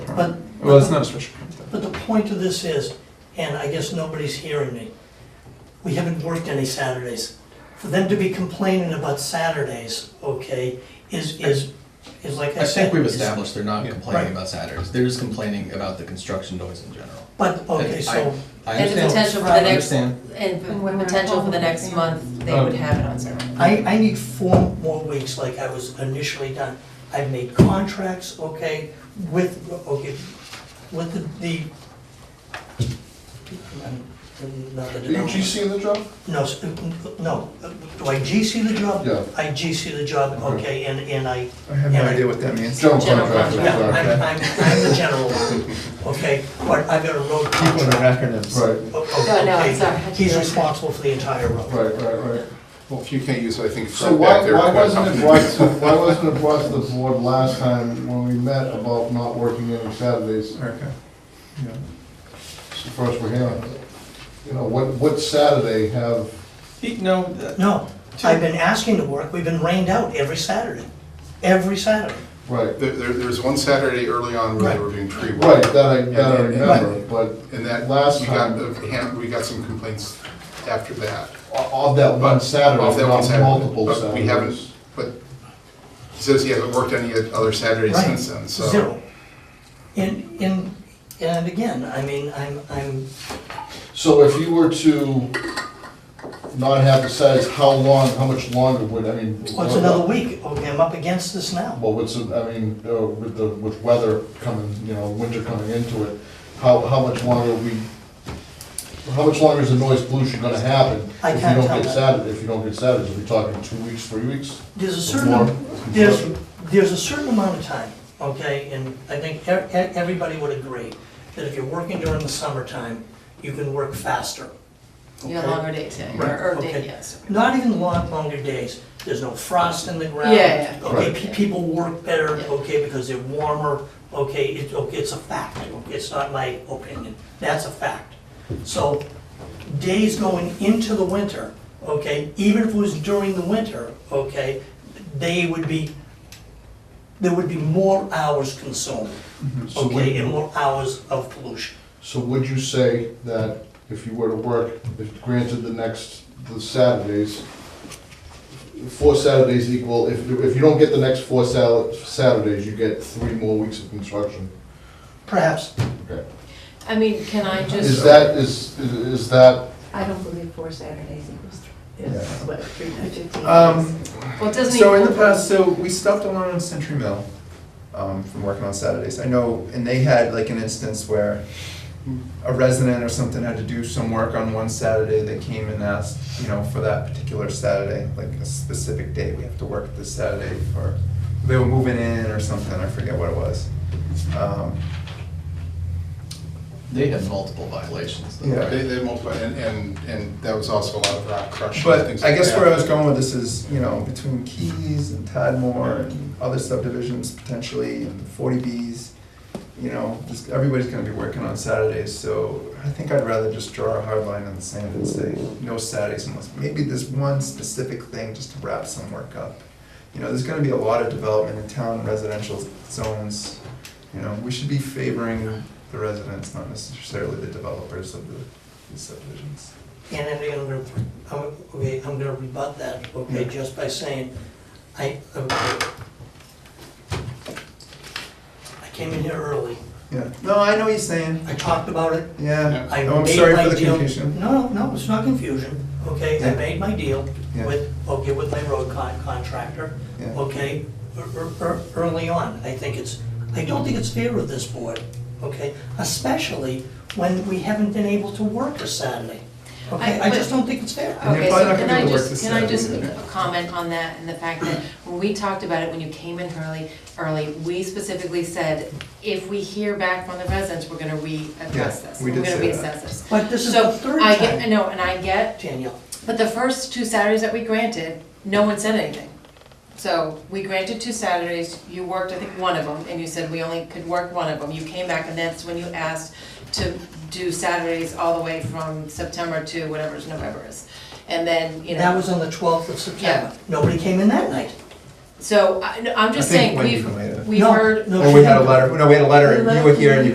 But, Well, it's not a special permit. then. but the point of this is, and I guess nobody's hearing me, we haven't worked any Saturdays. For them to be complaining about Saturdays, okay, is, is, is like I I said. think we've is- established they're not Yeah. complaining Right. about Saturdays, they're just complaining about the construction noise in general. But, okay, And so, I There's a understand. potential for I the next, understand. and And when p- we're potential for the home, next yeah. month, they Oh. would have it on Saturday. I, I need four more weeks like I was initially done. I've made contracts, okay, with, okay, with the, the. Not the Are you denominator. GC in the job? No, s- no, do I GC the job? Yeah. I GC the job, okay, and, and I, I have no Yeah. idea what that means. General General contractor, yeah, I'm, sorry. I'm, I'm the general, okay, but I've got a road People and contract. acronyms. Right, o- o- No, no, okay, it's all right. He's responsible for the entire road. right, right, right. Well, if you can't use it, I think it's So right why, back there. why wasn't it brought to, why wasn't it brought to the board last time when we met about not working on Saturdays? Okay. Yeah. It's the first we're hearing. You know, what, what Saturday have, He- No, uh, No, I've been asking to work, we've been rained out every Saturday, every Saturday. right, There, there, there was one Saturday early on where they were doing tree right, work. that I, that I remember, but And that, Last we got, time. the hand- we got some complaints after that. of that one But- Saturday, of that one not Saturday, multiple but we haven't- Saturdays. But he says he hasn't worked any other Saturdays Right. since then, so. Zero. And, and, and again, I mean, I'm, I'm, So if you were to not have the Saturdays, how long, how much longer would, I mean? what's another week? Okay, I'm up against this now. Well, what's, the- I mean, uh, with the, with weather coming, you know, winter coming into it, how, how much longer we, how much longer is the noise pollution gonna happen? I can't If you tell don't that. get Saturday, if you don't get Saturdays, are we talking two weeks, three weeks? There's a More certain, there's, there's a certain amount of time, okay, and I think e- e- everybody would agree that if you're working during the summertime, you can work faster. You have okay? longer days, yeah, or, or day, okay. yes. Not even long, longer days, there's no frost in the ground. Yeah, yeah, Okay, Right. pe- people work better, Yeah. okay, because they're warmer, okay, it, okay, it's a fact, okay, it's not my opinion, that's a fact. So, days going into the winter, okay, even if it was during the winter, okay, they would be, there would be more hours consumed, So okay, and would, more hours of pollution. so would you say that if you were to work, if granted the next, the Saturdays, four Saturdays equal, if, if you don't get the next four Sal- Saturdays, you get three more weeks of construction? Perhaps, Okay. I mean, can I Is just, that, is, is that I don't believe four Saturdays equals three, is what, three hundred fifteen Um, days. well, it doesn't So in the equal- past, so we stopped a lot on Century Mill um, from working on Saturdays. I know, and they had like an instance where a resident or something had to do some work on one Saturday. They came and asked, you know, for that particular Saturday, like a specific day, we have to work this Saturday for, they were moving in or something, I forget what it was. Um, they had multiple violations though. Yeah. They, they multiplied, and, and, and that was also a lot of rock crushing. and But things I like guess that. where I was going with this is, you know, between Keys and Tadmore and other subdivisions potentially, and forty Bs, you know, this, everybody's gonna be working on Saturdays, so I think I'd rather just draw a hard line in the sand and say, no Saturdays unless, maybe there's one specific thing just to wrap some work up. You know, there's gonna be a lot of development in town, residential zones, you know, we should be favoring the residents, not necessarily the developers of the these subdivisions. And then I'm gonna, I'm- okay, I'm gonna rebut that, okay, Yeah. just by saying, I, okay. I came in here early, Yeah, no, I know what you're saying. I talked about it, Yeah, I Mm-hmm. no, I'm made sorry my for the deal. confusion. No, no, it's not confusion, okay, I Yeah. made my deal Yeah. with, okay, with my road con- contractor, Yeah. okay, ear- ear- ear- early on, I think it's, I don't think it's fair of this board, okay? Especially when we haven't been able to work a Saturday, okay, I- I but- just don't think it's fair. And Okay, you're probably so not can gonna I be able to work just, this can I Saturday just either. comment on that and the fact that when we talked about it, when you came in early, early, we specifically said, if we hear back from the residents, we're gonna readdress Yeah, this. we did are say gonna that. reassess this. But this is the third So I get, I time, know, and I get, Danielle. but the first two Saturdays that we granted, no one said anything. So we granted two Saturdays, you worked, I think, one of them, and you said we only could work one of them. You came back and that's when you asked to do Saturdays all the way from September to whatever November is. And then, you know. That was on the 12th of September. Yeah. Nobody came in that night. So I, I'm I just think saying, Wendy we've, made it. we've No, heard. no, Or she we had a didn't. Oh, letter, no, we had a letter, and you were here and you